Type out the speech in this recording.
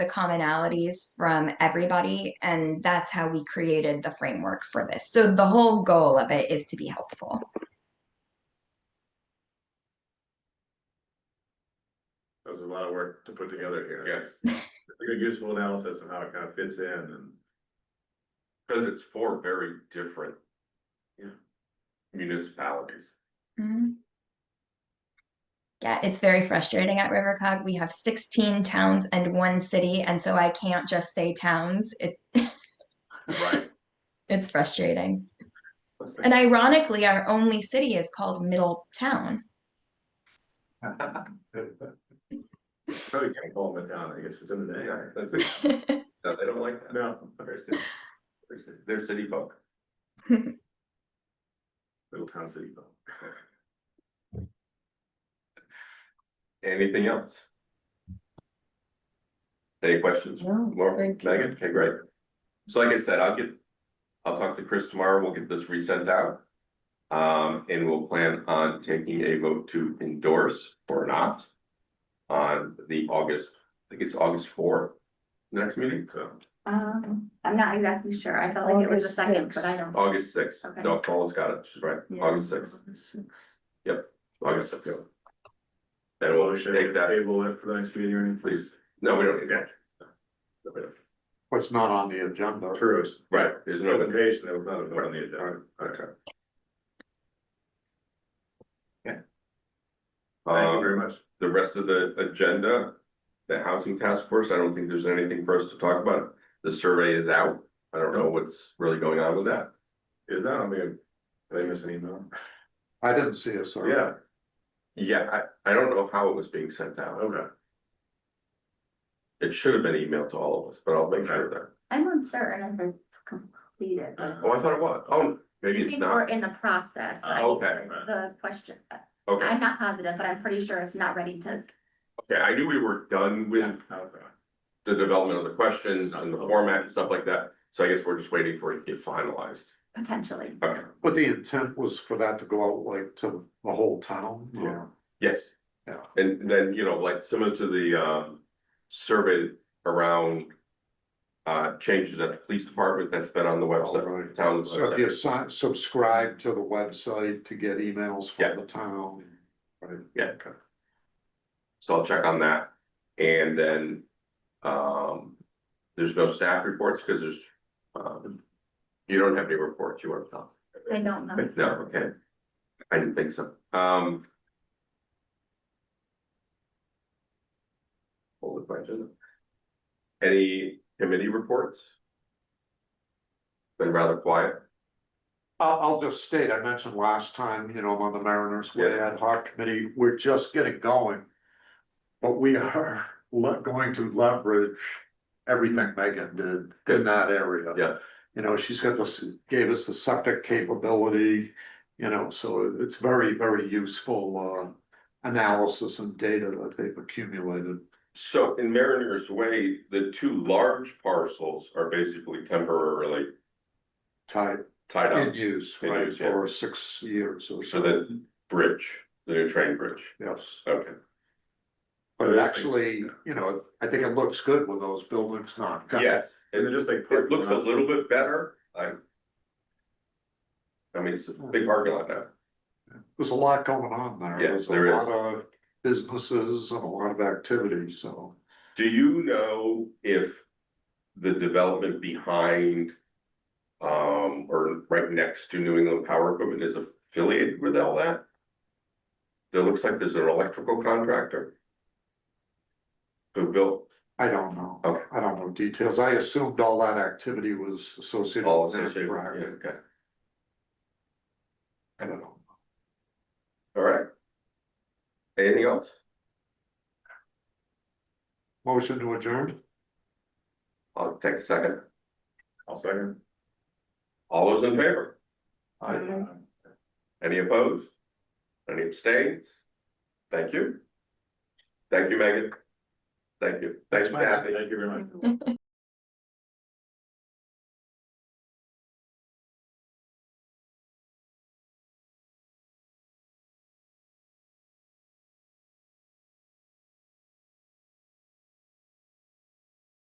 the commonalities from everybody. And that's how we created the framework for this. So the whole goal of it is to be helpful. That was a lot of work to put together here, yes. Like a useful analysis of how it kind of fits in and. Cause it's four very different. Yeah. Municipalities. Mhm. Yeah, it's very frustrating at Rivercog. We have sixteen towns and one city, and so I can't just say towns. It, Right. it's frustrating. And ironically, our only city is called Middletown. Probably can't call them down, I guess, within the day, Yeah, I- That's it. No, they don't like that. no, They're city- they're city- They're city folk. little town city though. Anything else? Any questions? No, Laura, thank you. Megan, okay, great. So like I said, I'll get, I'll talk to Chris tomorrow, we'll get this resent out. Um, and we'll plan on taking a vote to endorse or not. On the August, I think it's August four, the next meeting, so Um, I'm not exactly sure. I felt like it was the second, but I don't. August sixth, Okay. no, Colin's got it, she's right, August sixth, August sixth. Then we'll Motion, take that, table it for the next meeting or anything, please, no, we don't need that. No, we don't. What's not on the agenda? True, it's Right, there's no. presentation, they were probably going on the agenda. Okay. Yeah. Thank you Um, very much. the rest of the agenda, the housing task force, I don't think there's anything for us to talk about. The survey is out. I don't know what's really going on with that. Is that, I mean, did I miss an email? I didn't see a survey. Yeah, Yeah, I, I don't know how it was being sent out. okay, It should have been emailed to all of us, but I'll make sure that. I'm uncertain if it's completed. but- Uh, Oh, I thought it was. Oh, maybe I it's think We're not. in the process. Uh, I- okay. The question, Okay, I'm not positive, but I'm pretty sure it's not ready to, okay. I knew we were done with okay. the development of the questions and the format and stuff like that. So I guess we're just waiting for it to get finalized. potentially. Okay, But the intent was for that to go out like to the whole town. Yeah. yes. Yeah. And then, you know, like similar to the um survey around. Uh, changes at the police department that's been on the website, the Alright. town So if website. you assign, subscribe to the website to get emails Yeah. from the town. Right. Yeah. So I'll check on that. And then, um, there's no staff reports because there's, um. You don't have any reports you want to tell. I don't know. No, okay. I didn't think so. Um. Hold the question. Any committee reports? Been rather quiet. I'll, I'll just state, I mentioned last time, you know, I'm on the Mariners Way Yes. ad hoc committee, we're just getting going. But we are le- going to leverage everything Megan did in that area. Yeah. You know, she's got this, gave us the septic capability, you know, so it's very, very useful, uh, analysis and data that they've accumulated. So in Mariners Way, the two large parcels are basically temporarily Type tied in up. use, In right, use, yeah. for six years or So so. the bridge, the new train bridge. Yes. Okay, But But it it's like- actually, you know, I think it looks good when those buildings not. yes. And then just like. It looks a little bit better, I. I mean, it's a big parking lot now. There's a lot going on there. Yeah, There's a there is. lot of Businesses and a lot of activity, so. Do you know if the development behind? Um, or right next to New England Power Equipment is affiliated with all that? It looks like there's an electrical contractor. Who built, I don't know. Okay. I don't know details. I assumed all that activity was associated. all with that associated, yeah, project. okay, I don't know. all right. Anything else? Motion to adjourn? I'll take a second, I'll second. all those in favor, I, any opposed? Any abstains? Thank you. Thank you, Megan. Thank you, thanks, Kathy. Thank you very much.